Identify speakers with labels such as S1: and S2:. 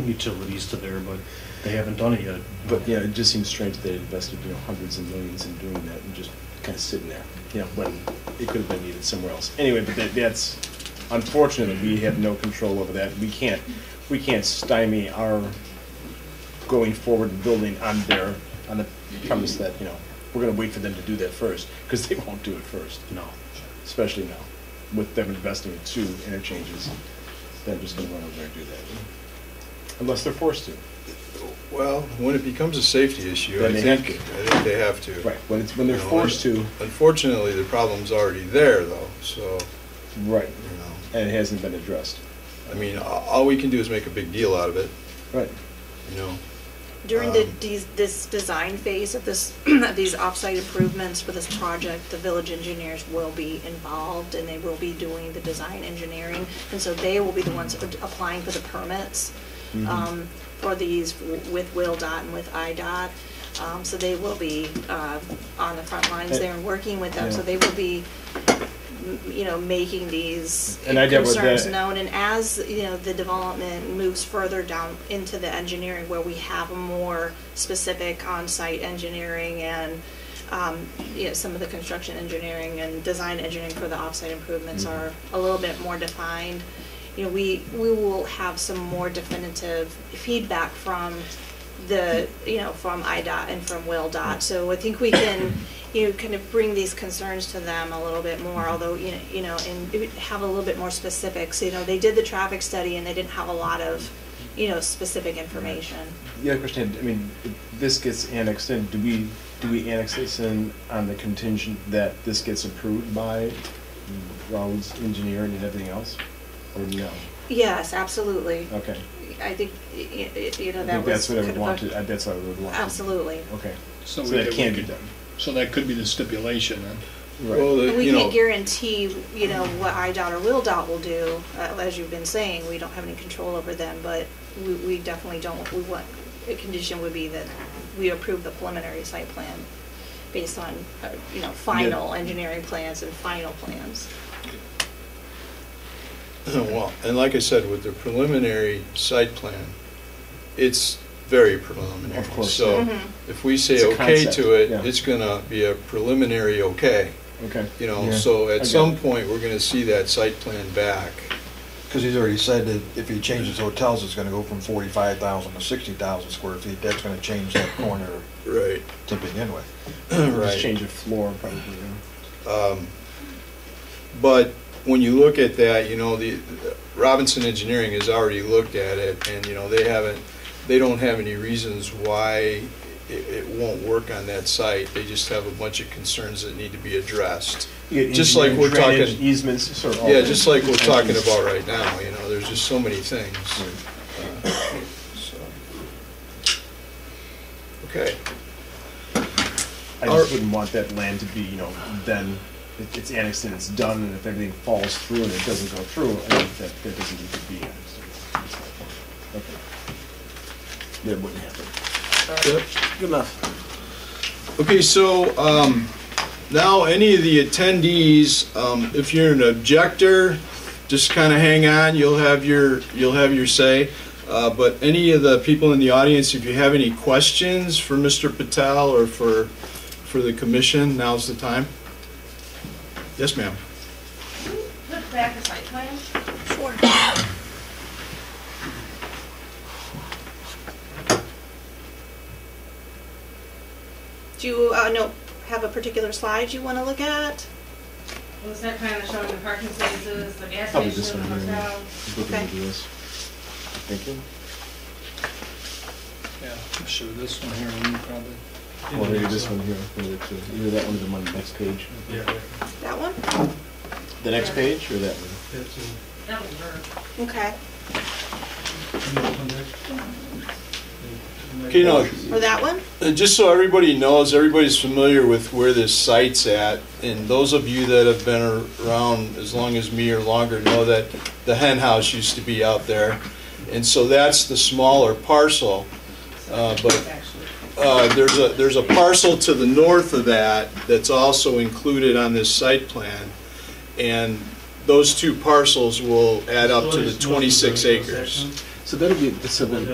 S1: utilities to there, but they haven't done it yet.
S2: But yeah, it just seems strange that they invested, you know, hundreds of millions in doing that and just kind of sitting there, you know, when it could have been needed somewhere else. Anyway, but that, that's unfortunately, we have no control over that. We can't, we can't stymie our going forward and building on their, on the premise that, you know, we're gonna wait for them to do that first, because they won't do it first,
S1: No.
S2: especially now, with them investing in two interchanges. They're just gonna run over there and do that, unless they're forced to.
S3: Well, when it becomes a safety issue, I
S2: Then they have
S3: think, I think they have to.
S2: Right, when it's, when they're
S3: You know,
S2: forced to.
S3: Unfortunately, the problem's already there though, so,
S2: Right,
S3: you know,
S2: and it hasn't been addressed.
S3: I mean, a- all we can do is make a big deal out of it,
S2: Right.
S3: you know?
S4: During the,
S3: Um,
S4: these, this design phase of this, of these offsite improvements for this project, the village engineers will be involved and they will be doing the design engineering. And so they will be the ones applying for the permits,
S2: Mm-hmm.
S4: um, for these with WillDOT and with IDOT. Um, so they will be, uh, on the front lines there and working with them. So
S2: Yeah.
S4: they will be, m- you know, making these
S2: And I did with
S4: concerns
S2: that-
S4: known known, and as, you know, the development moves further down into the engineering where we have a more specific on-site engineering and, um, you know, some of the construction engineering and design engineering for the off-site improvements
S2: Mm-hmm.
S4: are a little bit more defined. You know, we, we will have some more definitive feedback from the, you know, from IDOT and from WillDOT. So I think we can, you know, kind of bring these concerns to them a little bit more, although, you know, you know, and it would have a little bit more specifics. You know, they did the traffic study and they didn't have a lot of, you know, specific information.
S2: The other question, I mean, if this gets annexed in, do we, do we annex this in on the contingent that this gets approved by Rollins Engineering and everything else? Or no?
S4: Yes, absolutely.
S2: Okay.
S4: I think, y- y- you know,
S2: I
S4: that
S2: think
S4: was.
S2: that's what I would
S4: kind of a-
S2: want to, uh, that's what I would want. to-
S4: Absolutely.
S2: Okay.
S5: So
S2: So
S5: we
S2: that
S5: could-
S2: can
S5: we
S2: be
S5: could-
S2: done.
S5: So that could be the stipulation, then.
S2: Right.
S3: Well,
S4: And
S3: the-
S4: we
S3: you know,
S4: can't guarantee, you know, what IDOT or WillDOT will do, uh, as you've been saying, we don't have any control over them, but we, we definitely don't, we want, a condition would be that we approve the preliminary site plan based on, uh, you know, final engineering plans and final plans.
S3: well, and like I said, with the preliminary site plan, it's very preliminary.
S2: Of course.
S3: So
S4: Mhm.
S3: if we say
S2: It's a
S3: okay
S2: concept,
S3: to it,
S2: yeah.
S3: it's gonna be a preliminary okay,
S2: Okay.
S3: you know?
S6: Yeah.
S3: So
S2: I
S3: at
S2: got
S3: some
S2: it.
S3: point, we're gonna see that site plan back.
S6: Because he's already said that if he changes hotels, it's gonna go from forty-five thousand to sixty thousand square feet, that's gonna change that corner
S3: Right.
S6: to begin with.
S2: Just
S3: Right.
S2: change of floor probably. yeah.
S3: Um, But when you look at that, you know, the, Robinson Engineering has already looked at it, and, you know, they haven't, they don't have any reasons why it, it won't work on that site. They just have a bunch of concerns that need to be addressed.
S2: You get
S3: Just like
S2: engineering,
S3: we're talking-
S2: drainage, Easements, sort of. all
S3: Yeah,
S2: that.
S3: just like we're talking about right now, you know, there's just so many things. Uh, so. Okay,
S2: I
S3: Our-
S2: just wouldn't want that land to be, you know, then it- it's annexed and it's done, and if everything falls through and it doesn't go through, I think that, that doesn't need to be annexed. Okay. That wouldn't happen.
S3: Yep.
S2: Good enough.
S3: Okay, so um, now any of the attendees, um, if you're an objector, just kind of hang on. You'll have your you'll have your say. Uh, but any of the people in the audience, if you have any questions for Mr. Patel or for for the commission, now's the time. Yes, ma'am.
S7: Look back at site plan.
S4: Do you, uh, no, have a particular slide you wanna look at?
S7: Well, the site plan is showing the parking spaces, the gas
S2: Probably this
S7: station, the
S2: one here.
S7: hotel.
S4: Okay.
S2: Thank you.
S5: Yeah, sure, this one here, and probably.
S2: Well, maybe this one here, one of the two. either that one or the one next page.
S4: That one?
S2: The next page or that one?
S7: That was her.
S4: Okay,
S3: Okay, now
S4: or that one?
S3: Uh, Just so everybody knows, everybody's familiar with where this site's at, and those of you that have been around as long as me or longer know that the hen house used to be out there. And so that's the smaller parcel. Uh, But
S7: Actually.
S3: uh, there's a, there's a parcel to the north of that that's also included on this site plan. And those two parcels will add up to the 26 acres.
S2: So that'll be, so then